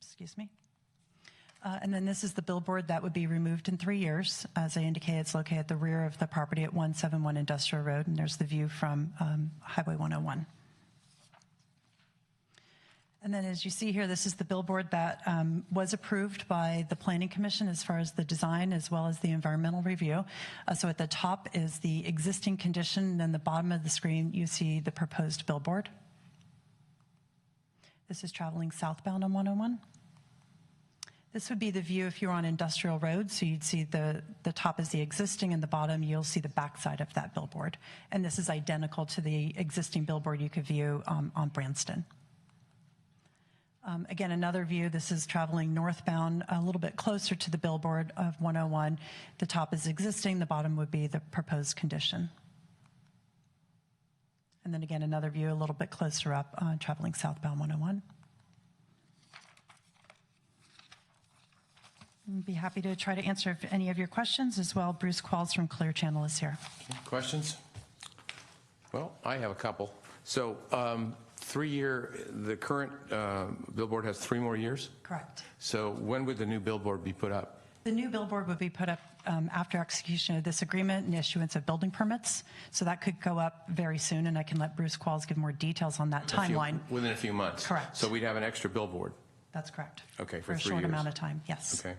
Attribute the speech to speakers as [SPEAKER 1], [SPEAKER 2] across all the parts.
[SPEAKER 1] excuse me. Uh, And then this is the billboard that would be removed in three years. As I indicated, it's located at the rear of the property at 171 Industrial Road, and there's the view from um, Highway 101. And then, as you see here, this is the billboard that um, was approved by the Planning Commission as far as the design as well as the environmental review. Uh, So at the top is the existing condition, and then the bottom of the screen, you see the proposed billboard. This is traveling southbound on 101. This would be the view if you're on Industrial Road, so you'd see the, the top is the existing and the bottom, you'll see the backside of that billboard. And this is identical to the existing billboard you could view um, on Branston. Um, Again, another view, this is traveling northbound, a little bit closer to the billboard of 101. The top is existing, the bottom would be the proposed condition. And then again, another view a little bit closer up, uh, traveling southbound 101. And Be happy to try to answer if any of your questions as well. Bruce Qualls from Clear Channel is here.
[SPEAKER 2] Questions? Well, I have a couple. So um, three-year, the current uh, billboard has three more years.
[SPEAKER 1] Correct.
[SPEAKER 2] So when would the new billboard be put up?
[SPEAKER 1] The new billboard would be put up um, after execution of this agreement and issuance of building permits. So that could go up very soon, and I can let Bruce Qualls give more details on that
[SPEAKER 2] A few-
[SPEAKER 1] timeline.
[SPEAKER 2] Within a few months.
[SPEAKER 1] Correct.
[SPEAKER 2] So we'd have an extra billboard.
[SPEAKER 1] That's correct.
[SPEAKER 2] Okay, for
[SPEAKER 1] a
[SPEAKER 2] three
[SPEAKER 1] short
[SPEAKER 2] years.
[SPEAKER 1] amount of time, yes.
[SPEAKER 2] Okay.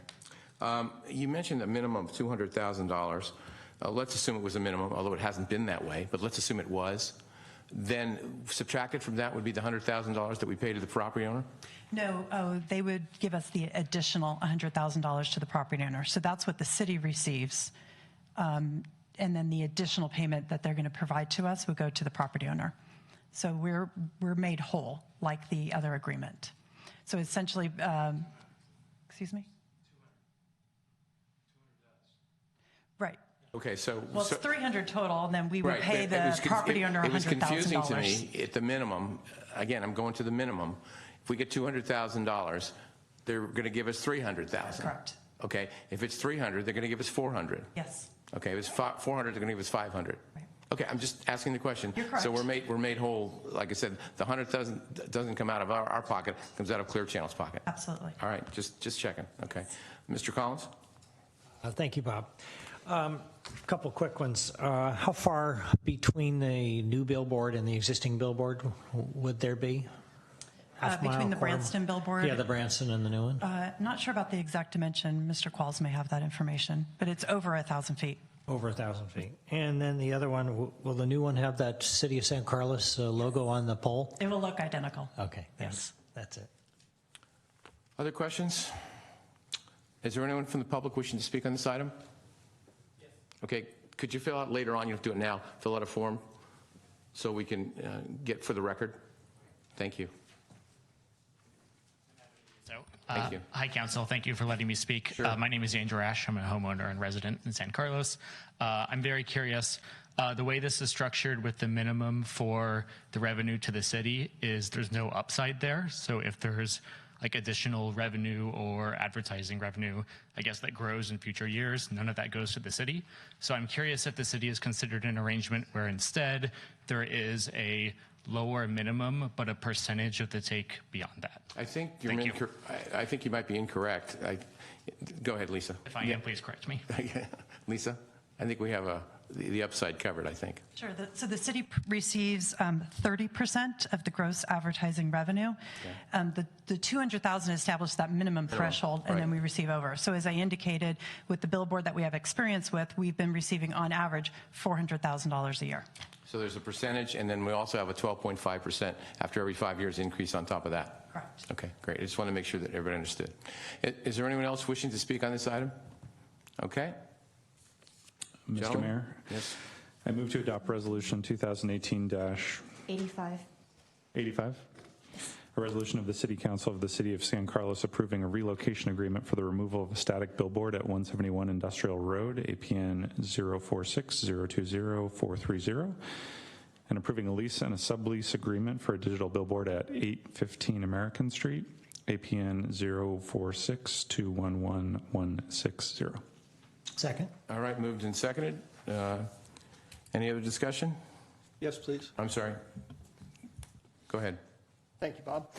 [SPEAKER 2] Um, You mentioned a minimum of $200,000. Uh, Let's assume it was a minimum, although it hasn't been that way, but let's assume it was. Then subtracted from that would be the $100,000 that we pay to the property owner?
[SPEAKER 1] No, oh, they would give us the additional $100,000 to the property owner. So that's what the city receives. Um, And then the additional payment that they're going to provide to us would go to the property owner. So we're, we're made whole, like the other agreement. So essentially, um, excuse me? Right.
[SPEAKER 2] Okay, so.
[SPEAKER 1] Well, it's
[SPEAKER 2] so-
[SPEAKER 1] 300 total, and then we would
[SPEAKER 2] Right,
[SPEAKER 1] pay
[SPEAKER 2] but it
[SPEAKER 1] the
[SPEAKER 2] was conf-
[SPEAKER 1] property
[SPEAKER 2] it-
[SPEAKER 1] owner $100,000.
[SPEAKER 2] It was confusing to me, at the minimum, again, I'm going to the minimum, if we get $200,000, they're going to give us 300,000.
[SPEAKER 1] Correct.
[SPEAKER 2] Okay, if it's 300, they're going to give us 400.
[SPEAKER 1] Yes.
[SPEAKER 2] Okay, if it's fi- 400, they're going to give us 500.
[SPEAKER 1] Right.
[SPEAKER 2] Okay, I'm just asking the question.
[SPEAKER 1] You're correct.
[SPEAKER 2] So we're made, we're made whole, like I said, the 100 doesn't, doesn't come out of our, our pocket, it comes out of Clear Channel's pocket.
[SPEAKER 1] Absolutely.
[SPEAKER 2] All right, just, just checking, okay. Mr. Collins?
[SPEAKER 3] Uh, Thank you, Bob. Um, Couple quick ones. Uh, How far between the new billboard and the existing billboard w- would there be?
[SPEAKER 1] Uh,
[SPEAKER 3] Half mile,
[SPEAKER 1] between the
[SPEAKER 3] quarter-
[SPEAKER 1] Branston billboard-
[SPEAKER 3] Yeah, the Branston and the new one,
[SPEAKER 1] Uh, Not sure about the exact dimension. Mr. Qualls may have that information, but it's over a 1,000 feet.
[SPEAKER 3] over a 1,000 feet. And then the other one, w- will the new one have that City of San Carlos uh, logo on the pole?
[SPEAKER 1] It will look identical.
[SPEAKER 3] Okay, thanks. That's it.
[SPEAKER 2] Other questions? Is there anyone from the public wishing to speak on this item? Okay, could you fill out later on, you don't have to do it now, fill out a form so we can uh, get for the record? Thank you.
[SPEAKER 4] So,
[SPEAKER 2] Thank
[SPEAKER 4] uh,
[SPEAKER 2] you.
[SPEAKER 4] Hi, Council. Thank you for letting me speak. Uh, my name is Andrew Ash. I'm a homeowner and resident in San Carlos. Uh, I'm very curious. Uh, the way this is structured with the minimum for the revenue to the city is there's no upside there. So if there's like additional revenue or advertising revenue, I guess that grows in future years. None of that goes to the city. So I'm curious if the city is considered an arrangement where instead there is a lower minimum, but a percentage of the take beyond that.
[SPEAKER 2] I think you're,
[SPEAKER 4] Thank you.
[SPEAKER 2] incor- I I think you might be incorrect. I- Go ahead, Lisa.
[SPEAKER 4] If I am, please correct me.
[SPEAKER 2] Lisa, I think we have uh, the the upside covered, I think.
[SPEAKER 1] Sure. The- So the city p- receives um, 30% of the gross advertising revenue. Um, The the 200,000 established that minimum threshold, and then
[SPEAKER 2] right.
[SPEAKER 1] we receive over. So as I indicated, with the billboard that we have experience with, we've been receiving on average $400,000 a year.
[SPEAKER 2] So there's a percentage, and then we also have a 12.5% after every five years increase on top of that.
[SPEAKER 1] Correct.
[SPEAKER 2] Okay, great. I just want to make sure that everybody understood. I- Is there anyone else wishing to speak on this item? Okay.
[SPEAKER 5] Mr.
[SPEAKER 2] Gentlemen?
[SPEAKER 5] Mayor,
[SPEAKER 2] Yes.
[SPEAKER 5] I move to adopt Resolution 2018-85,
[SPEAKER 6] 85.
[SPEAKER 5] a resolution of the City Council of the City of San Carlos approving a relocation agreement for the removal of a static billboard at 171 Industrial Road, APN 046020430, and approving a lease and a sublease agreement for a digital billboard at 815 American Street, APN 046211160.
[SPEAKER 3] Second?
[SPEAKER 2] All right, moved and seconded. Uh, Any other discussion?
[SPEAKER 7] Yes, please.
[SPEAKER 2] I'm sorry. Go ahead.
[SPEAKER 7] Thank you, Bob.